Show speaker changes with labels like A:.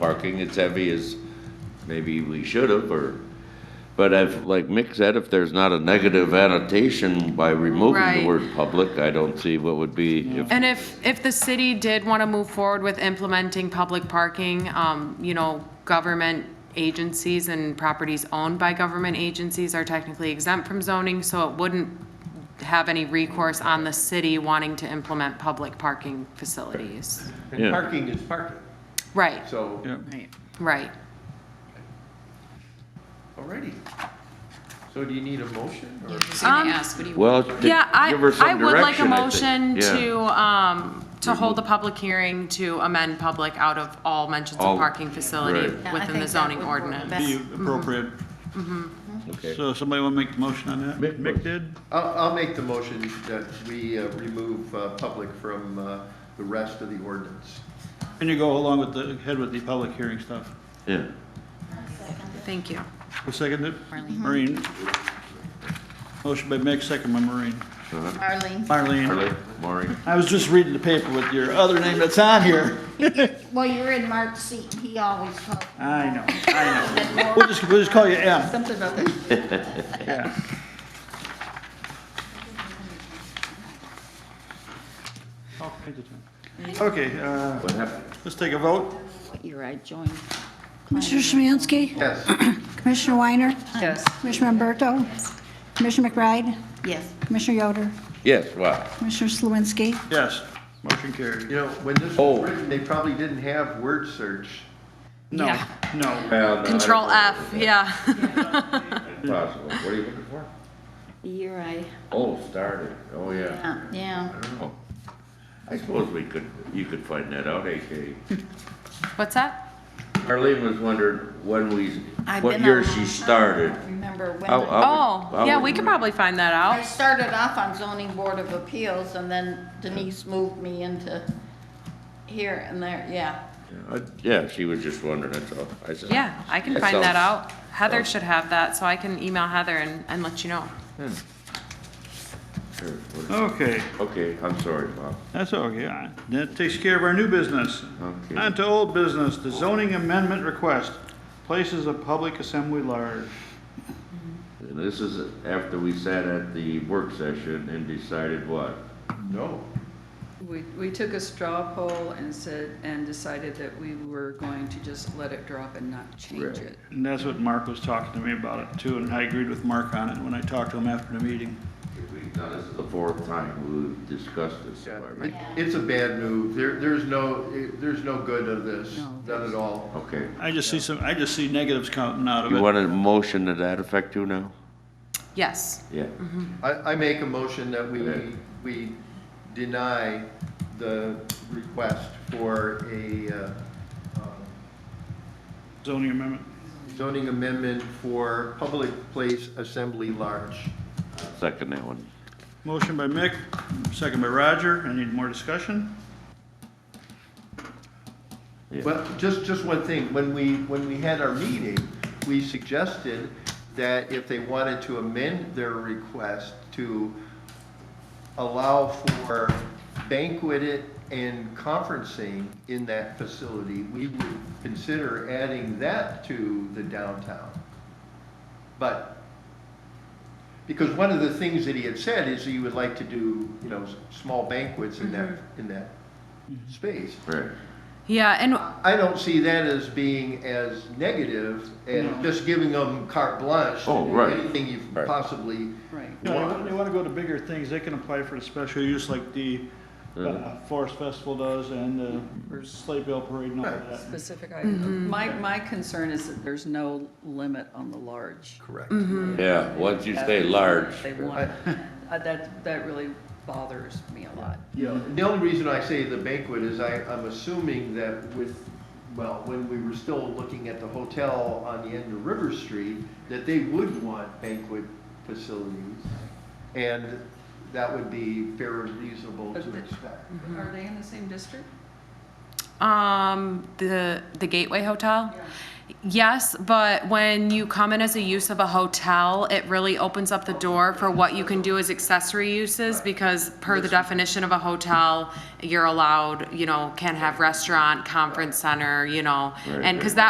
A: parking as heavy as maybe we should have, or, but if, like Mick said, if there's not a negative annotation by removing
B: Right.
A: the word public, I don't see what would be, if,
B: And if, if the city did want to move forward with implementing public parking, um, you know, government agencies and properties owned by government agencies are technically exempt from zoning, so it wouldn't have any recourse on the city wanting to implement public parking facilities.
A: Yeah.
C: And parking is parking,
B: Right,
C: so,
B: right.
C: already. So do you need a motion or?
D: Just gonna
B: Um,
D: ask, what do you?
A: well, to give
B: Yeah, I,
A: her
B: I
A: some
B: would like a
A: direction, I
B: motion
A: think. Yeah. Mm-hmm.
B: to, um, to hold the public hearing to amend public out of all mentions
A: All-
B: of parking facility
A: right.
D: Yeah, I
B: within the
D: think that
B: zoning
D: would work
B: ordinance.
D: best.
E: be appropriate.
D: Mm-hmm.
A: Okay.
E: So somebody want to make the motion on that?
A: Mick was.
E: Mick did?
C: I'll, I'll make the motion that we uh, remove uh, public from uh, the rest of the ordinance.
E: And you go along with the, head with the public hearing stuff.
A: Yeah.
B: Thank you.
E: Who seconded it? Maureen. Motion by Mick, second by Maureen.
D: Arlene,
E: Marlene,
A: Harley, Maureen,
E: I was just reading the paper with your other name that's on here.
F: Well, you're in Mark's seat, and he always helps.
E: I know, I know. We'll just, we'll just call you M.
D: something about that.
E: Yeah. Oh, I did that. Okay, uh,
A: what happened?
E: let's take a vote.
F: You're right, joined.
G: Commissioner Smansky?
C: Yes,
G: Commissioner Weiner?
D: Yes.
G: Commissioner Umberto? Commissioner McBride?
D: Yes.
G: Commissioner Yoder?
A: Yes, wow.
G: Commissioner Slawinski?
E: Yes, motion carried.
C: you know, when this
A: Oh.
C: was written, they probably didn't have word search.
E: No,
B: Yeah.
E: no.
B: Control F, yeah.
A: Possible, what are you looking for?
F: You're right,
A: Oh, started, oh, yeah.
F: yeah, yeah.
A: Oh. I suppose we could, you could find that out, AK.
B: What's that?
A: Harley was wondering when we,
F: I've
A: what
F: been
A: year
F: on
A: she
F: that.
A: started.
F: Remember when
A: I'll-
F: I-
A: I'll-
B: Oh,
A: I'll-
B: yeah, we could probably find that
F: I
B: out.
F: started off on zoning board of appeals, and then Denise moved me into here and there, yeah.
A: I- Yeah, she was just wondering, that's all. I said.
B: Yeah, I can
A: That
B: find that
A: sounds-
B: out. Heather
A: sounds-
B: should have that, so I can email Heather and, and let you know.
A: Sure, what is-
E: Okay,
A: Okay, I'm sorry, Bob.
E: that's okay. I- That takes care of our new business.
A: Okay.
E: On to old business, the zoning amendment request, places of public assembly large.
A: And this is after we sat at the work session and decided what?
C: No.
H: We, we took a straw poll and said, and decided that we were going to just let it drop and not change
A: Right.
H: it.
E: And that's what Mark was talking to me about it too, and I agreed with Mark on it when I talked to him after the meeting.
A: We've done this the fourth time we've discussed this.
C: Yeah.
A: already.
C: It's a bad move. There, there's no, eh, there's no good of this,
H: No.
C: none at all.
A: Okay.
E: I just see some, I just see negatives coming out
A: You
E: of it.
A: want a motion to that effect too now?
B: Yes.
A: Yeah.
B: Mm-hmm.
C: I, I make a motion that we,
A: Okay.
C: we deny the request for a uh, um,
E: Zoning amendment.
C: zoning amendment for public place assembly large.
A: Second that one.
E: Motion by Mick, second by Roger. I need more discussion.
C: Well, just, just one thing, when we, when we had our meeting, we suggested that if they wanted to amend their request to allow for banquet and conferencing in that facility, we would consider adding that to the downtown. But, because one of the things that he had said is he would like to do, you know, s- small banquets in that, in that space.
A: Right.
B: Yeah, and,
C: I don't see that as being as negative and just giving them carte blanche. to
A: Oh,
C: do
A: right.
C: Anything you
A: Right.
C: possibly
E: You
H: Right.
E: know, they
C: want.
E: want, they want to go to bigger things. They can apply for the special use like the uh, Forest Festival does and the Sleigh Bell Parade and all of that.
H: Specific item. My, my concern is that there's no limit on the large.
C: Correct.
A: Yeah, once you say large.
H: They want, Uh, that, that really bothers me a lot.
C: Yeah, the only reason I say the banquet is I, I'm assuming that with, well, when we were still looking at the hotel on the end of River Street, that they would want banquet facilities. And that would be fair and reasonable
H: But
C: to
H: the-
C: expect.
H: Are they in the same district?
B: um, the, the Gateway Hotel? Yes, but when you come in as a use of a hotel, it really opens up the door for what you can do as accessory uses because per the definition of a hotel, you're allowed, you know, can have restaurant, conference center, you know,
A: Right,
B: and, because
A: right.
B: that